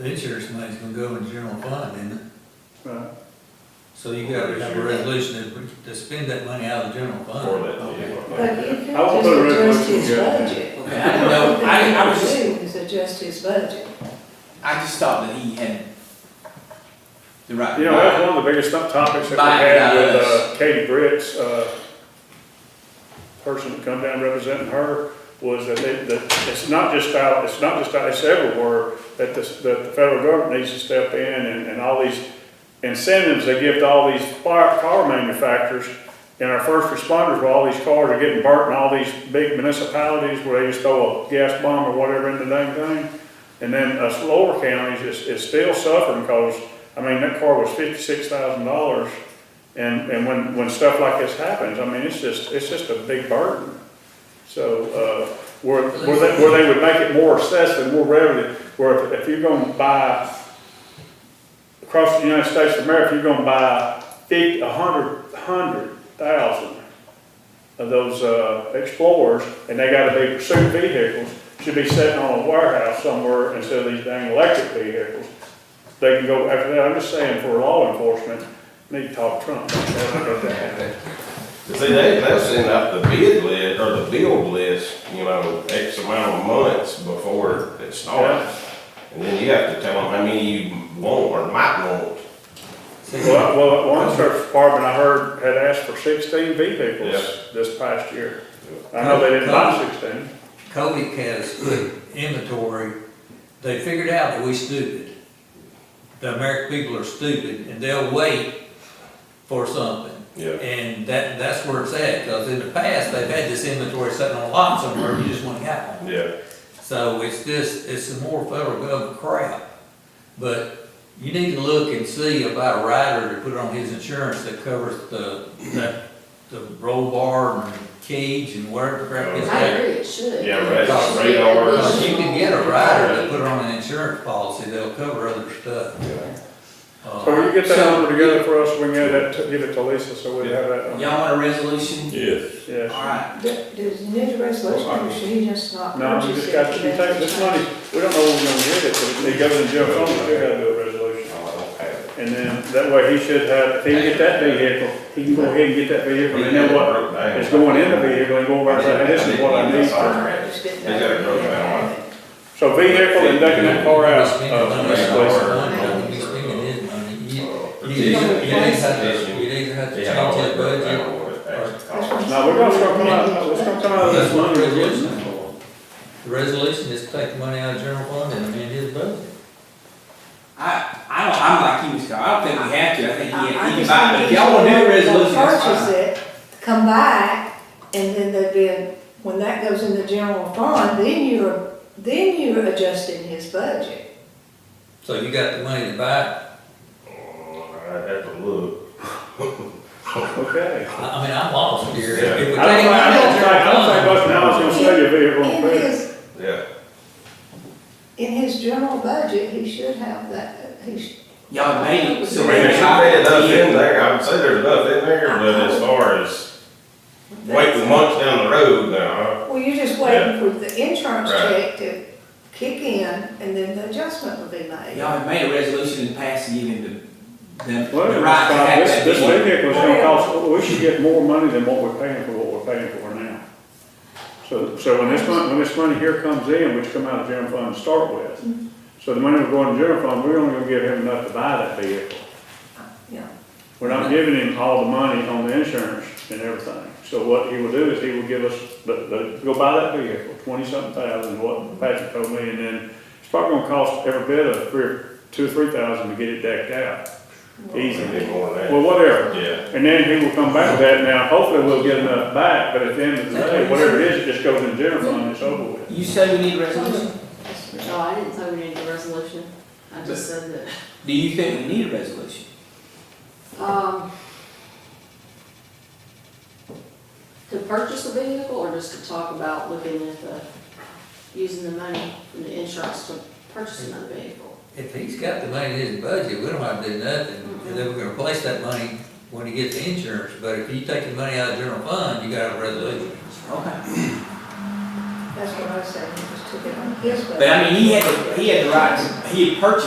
The insurance money's gonna go in general fund, isn't it? Right. So you gotta have a resolution to, to spend that money out of the general for fund. that, But yeah. you could I will just put a adjust his resolution budget. Okay, I don't know, I, I was just, All you can do is adjust his budget. I just thought that he had the right. You know, that's one of the biggest top- topics that we Mike had with does. uh, Katie Britt's, uh, person that come down representing her, was that it, that it's not just out, it's not just out, it's everywhere, that the, that the federal government needs to step in and, and all these incentives they give to all these fire, car manufacturers, and our first responders, where all these cars are getting burnt in all these big municipalities where they just throw a gas bomb or whatever in the dang thing. And then us lower counties is, is still suffering because, I mean, that car was fifty-six thousand dollars. And, and when, when stuff like this happens, I mean, it's just, it's just a big burden. So, uh, where, where they, where they would make it more accessible, more revenue, where if if you're gonna buy across the United States of America, you're gonna buy fifty, a hundred, hundred thousand of those, uh, Explorers, and they gotta be pursuit vehicles, should be sitting on a warehouse somewhere instead of these dang electric vehicles. They can go after that, I'm just saying for law enforcement, need to talk Trump. See, they, they'll send out the bid list, or the build list, you know, X amount of months before it starts. And then you have to tell them how many you want or might want. See, Well, well, one search department I heard had asked for sixteen vehicles Yeah. this past year. I know they didn't buy sixteen. Kobe had us put inventory, they figured out that we stupid. The American people are stupid, and they'll wait for something. Yeah. And that, that's where it's at, cause in the past, they've had this inventory sitting on a lot somewhere, you just wouldn't have one. Yeah, So it's just, it's some more federal government crap. But you need to look and see about a rider to put on his insurance that covers the, that, the roll bar and cage and whatever crap is I there. agree, it should. Yeah, right, it's radar. It should. You can get a rider to put on an insurance policy that'll cover other stuff. yeah. So will Uh, you get that So- number together for us, we can get that, to- give it to Lisa, so we have that. on- Y'all want a resolution? Yes. Yes. Alright, Do- Does he need a resolution, or should he just not No, we purchase just it? got, to you take this money, we don't know when we're gonna get it, but if it goes in general fund, we still gotta do a resolution. No, Oh, I don't have it. And then, that way he should have, if he can get that vehicle, he can go ahead and get that vehicle, and then what, Broke down. Uh, is going in the vehicle and going back, and this is what I need for Just get They got a broke down line. So vehicle and ducking that car out you spend of money, this you place. spend money, you spend his money. You- So, You either you either have to, you either have to change Yeah, I don't that know. I budget don't know what it actually costs. Now, we're gonna start coming out, let's start coming out of this That's what the money. we're resolution getting. is for. The resolution is to take the money out of general fund and amend his budget. I, I don't, I'm like you, Mr. I don't think we have to, I think I- he, I he can just buy it, think if y'all wanna do a he's gonna resolution, that's Purchase fine. it, come back, and then there'd be, a- when that goes in the general fund, then you're, then you're adjusting his budget. So you got the money to buy, it. I'd have to look. Okay. I, I mean, I'm lost here. If we I take don't, the money think- I out don't of think, I don't think general fund, Buck Now's gonna sell you a vehicle on In credit. his, Yeah, in his general budget, he should have that, he should. Y'all made it, so I we're mean, gonna there's try it. enough in there, I would say there's enough in there, but as far as waiting months down the road now, Well, you're just waiting for the insurance Right. check to kick in, and then the adjustment will be made. Y'all have made a resolution and passed it, giving the, the, the Well, right to it's fine. have This, that. this vehicle. vehicle is gonna cost, we should get more money than what we're paying for what we're paying for now. So, so when this money, when this money here comes in, which come out of general fund to start with, so the money we're going to general fund, we're only gonna give him enough to buy that vehicle. Yeah. We're not giving him all the money on the insurance and everything. So what he will do is he will give us, the, the, go buy that vehicle, twenty-something thousand, what Patrick told me, and then it's probably gonna cost every bit of three, or- two or three thousand to get it decked out. it's Easy. gonna be more than Well, whatever. that. Yeah, And then he will come back with that. Now, hopefully we'll get enough back, but at the end of the day, whatever it is, it just goes in the general fund, and it's over with. You say we need a resolution? No, I didn't say we needed a resolution, I just said that, Do you think we need a resolution? um, to purchase a vehicle or just to talk about looking at the, using the money from the insurance to purchase another vehicle? if he's got the money in his budget, we don't have to do nothing. And then we're gonna replace that money when he gets the insurance, but if you take the money out of general fund, you got a resolution. Okay. That's what I was saying, just took it on his budget. But I mean, he had, the- he had the right, to- he had purchased